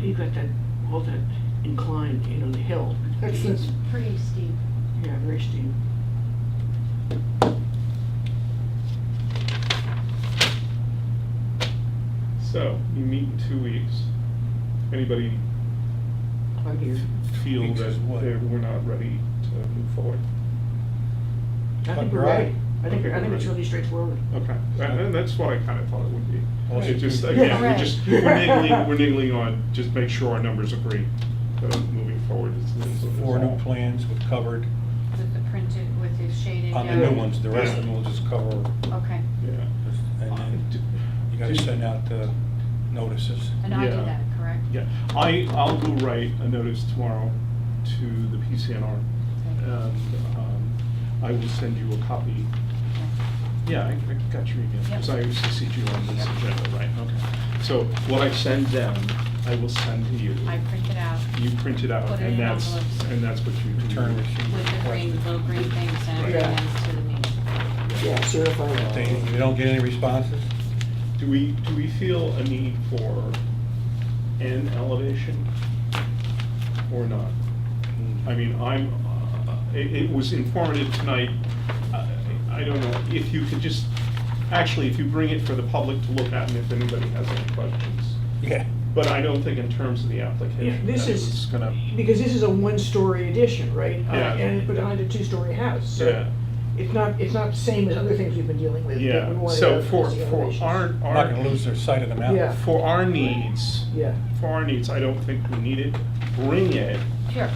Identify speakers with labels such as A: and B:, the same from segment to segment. A: you've got that, all that incline, you know, the hill. That's the-
B: It's pretty steep.
A: Yeah, very steep.
C: So, you meet in two weeks. Anybody
A: I'm here.
C: feel
D: Weeks
C: that
D: is what?
C: they're- we're not ready to move forward?
A: I
D: But
A: think we're
D: right.
A: right. I think, I think it's really straightforward.
C: Okay, and and that's what I kind of thought it would be.
D: Right.
C: It just, again, we're
B: Right.
C: just, we're niggling, we're niggling on, just make sure our numbers agree, uh, moving forward. is- is- is
D: Four new
C: all.
D: plans with covered,
B: With the printed, with the shaded.
D: on the
B: yellow.
D: new ones, the rest of them will just cover,
B: Okay,
C: Yeah. Um,
D: just- and then you gotta send out the notices.
B: and I
C: Yeah.
B: did that, correct?
C: Yeah, I, I'll go write a notice tomorrow to the PCNR, and um, I will send you a copy. Yeah, I I got your email, because I
B: Yep.
C: CC'd you on this agenda, right, okay. So what I send them, I will send to you.
B: I printed out
C: You print it out,
B: Put it
C: and
B: in
C: that's,
B: envelopes.
C: and that's what you do.
D: Return receipt.
B: with the green, little green things and
A: Yeah.
B: everything to the meeting.
A: Yeah, certified.
D: If they, if you don't get any responses,
C: Do we, do we feel a need for an elevation or not? I mean, I'm, uh, it, it was informative tonight. I- I don't know, if you could just, actually, if you bring it for the public to look at and if anybody has any questions.
D: yeah.
C: But I don't think in terms of the
A: Yeah,
C: application,
A: this
C: that was
A: is,
C: gonna,
A: because this is a one-story addition, right? Uh,
C: Yeah.
A: And behind a two-story house,
C: yeah,
A: so it's not, it's not the same as other things we've been dealing with. that we
C: yeah.
A: wanted
C: So
A: to
C: for,
A: see
C: for
A: elevations.
C: our,
D: We're
C: our,
D: not gonna lose their sight of the
A: Yeah.
D: mountain.
C: for our needs,
A: Yeah,
C: for our needs, I don't think we need it. Bring it,
B: Sure.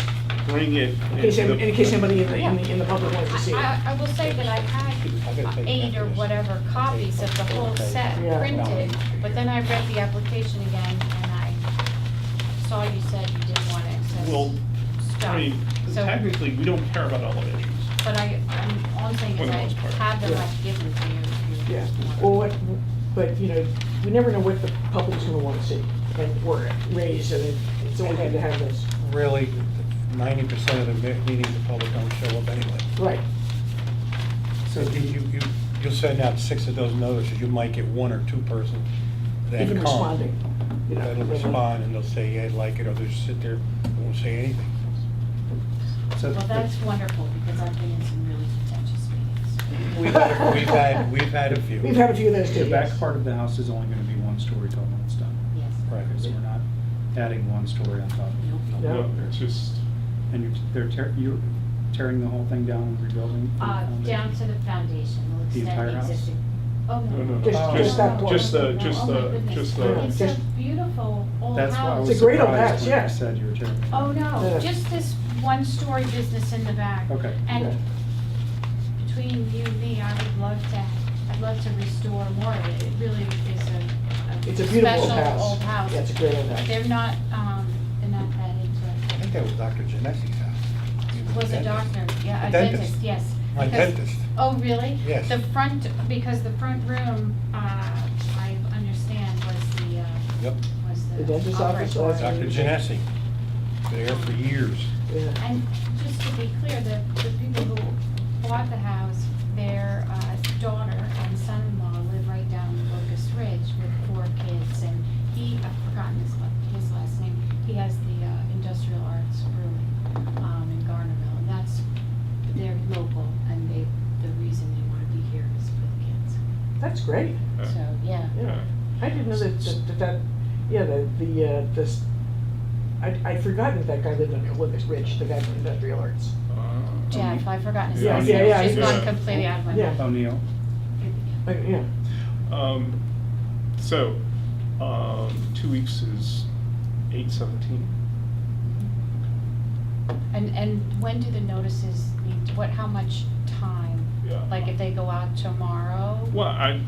C: bring it.
A: in case,
C: into
A: any-
C: the-
A: in case somebody in the, in the, in the public wants to see it.
B: I, I I will say that I
D: I gotta
B: had
D: take
B: eight or
D: pictures.
B: whatever copies of the whole set
A: Yeah.
B: printed, but then I read the application again and I saw you said you didn't want excess
C: Well, I
B: stuff.
C: mean,
B: So,
C: technically, we don't care about elevations.
B: but I, I'm, all I'm saying
C: For
B: is
C: the
B: I
C: most part.
B: have them,
A: Yeah.
B: I've given to you if you
A: Yeah,
B: just want.
A: well, what, but, you know, we never know what the public's gonna wanna see, and, or raise, and it's always good to have this.
D: Really, ninety percent of the me- meetings, the public don't show up anyway.
A: Right,
D: So you, you, you- you'll send out six of those notices, you might get one or two persons that
A: even
D: come.
A: responding. you know,
D: That'll
A: they won't-
D: respond, and they'll say, yeah, I like it, or they'll just sit there, and won't say anything. So
B: Well, that's wonderful, because I've been in some really contentious meetings.
D: We've had, we've had, we've had a few.
A: We've had a few of those too.
E: The back
A: yes.
E: part of the house is only gonna be one story tall when it's done.
B: Yes.
D: Right.
E: Okay, So we're not adding one story on top of
B: Nope.
A: Yeah.
C: No, it's just,
E: it. And you're, they're tear, you're tearing the whole thing down and rebuilding? the
B: Uh,
E: foundation?
B: down to the foundation, we'll
E: The entire
B: extend the
E: house?
B: existing. Oh,
C: no, no,
A: Just-
C: no, just,
D: Oh. just that
B: no,
C: just the,
B: no,
C: just
B: oh my
C: the,
B: goodness.
C: just
A: Yeah.
C: the,
B: It's a beautiful old
E: That's why I
B: house.
E: was
A: It's a great old house,
E: surprised when
A: yeah.
E: you said you were tearing. it
B: Oh,
E: down.
B: no,
A: Yeah.
B: just this one-story business in the back.
E: Okay.
A: Yeah.
B: And between you and me, I would love to, I'd love to restore more of it. It really is a,
A: It's
B: a
A: a beautiful
B: special
A: old house.
B: old house.
A: Yeah, it's a great old house.
B: They're not, um, they're not that
D: I
B: into
D: think that was Dr. Genesi's house. He
B: it. Was a doctor, yeah, a
D: A dentist.
B: dentist, yes.
D: My
B: Because-
D: dentist.
B: Oh, really?
D: Yes.
B: The front, because the front room, uh, I understand was the, uh,
D: Yep,
B: was the.
A: The dentist's office or-
B: operatory.
D: Dr. Genesi, there for years.
A: Yeah.
B: And just to be clear, the, the people who bought the house, their uh, daughter and son-in-law live right down Locust Ridge with four kids, and he, I've forgotten his, la- his last name, he has the uh, industrial arts room um, in Garnerville, and that's, they're local, and they, the reason they want to be here is for
A: That's great,
B: the kids, so, yeah.
A: yeah.
C: yeah.
A: I didn't know that, that, that- that, yeah, the, the, uh, this, I, I'd forgotten that that guy lived on Locust Ridge, the guy from Industrial Arts.
C: Uh,
B: Jeff, I've forgotten his
A: Yeah,
B: last
A: yeah,
B: name,
A: yeah,
B: she's
C: yeah.
B: gone completely out of my
A: Yeah.
B: mind.
E: O'Neill,
A: Like, yeah,
C: Um, so, um, two weeks is eight seventeen.
B: And, and when do the notices need, to- what, how much time?
C: Yeah.
B: Like if they go out tomorrow
C: Well, I,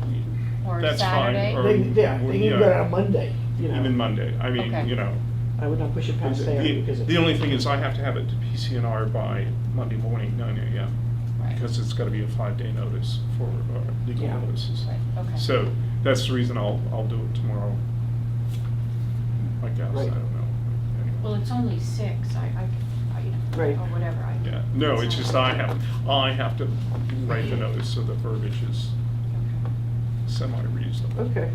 B: or
C: that's fine,
B: Saturday?
C: or-
A: they, yeah,
C: Or-
A: they can
C: yeah.
A: go out on Monday, you
C: even
A: know,
C: Monday, I mean,
B: Okay.
C: you know.
A: I would not push it past there
C: The
A: because. it-
C: the only thing is I have to have it to PCNR by Monday morning, nine AM,
B: Right,
C: because it's gotta be a five-day notice for uh, legal
A: Yeah.
C: notices.
B: right, okay.
C: So that's the reason I'll, I'll do it tomorrow. I guess, I
A: Right.
C: don't know.
B: Well,
C: Anyway.
B: it's only six, I, I, I- you
A: Right.
B: know, or whatever, I.
C: Yeah, no, it's just I have, I have to write the notice so the verbiage is
B: Okay.
C: semi-reasonable.
A: Okay.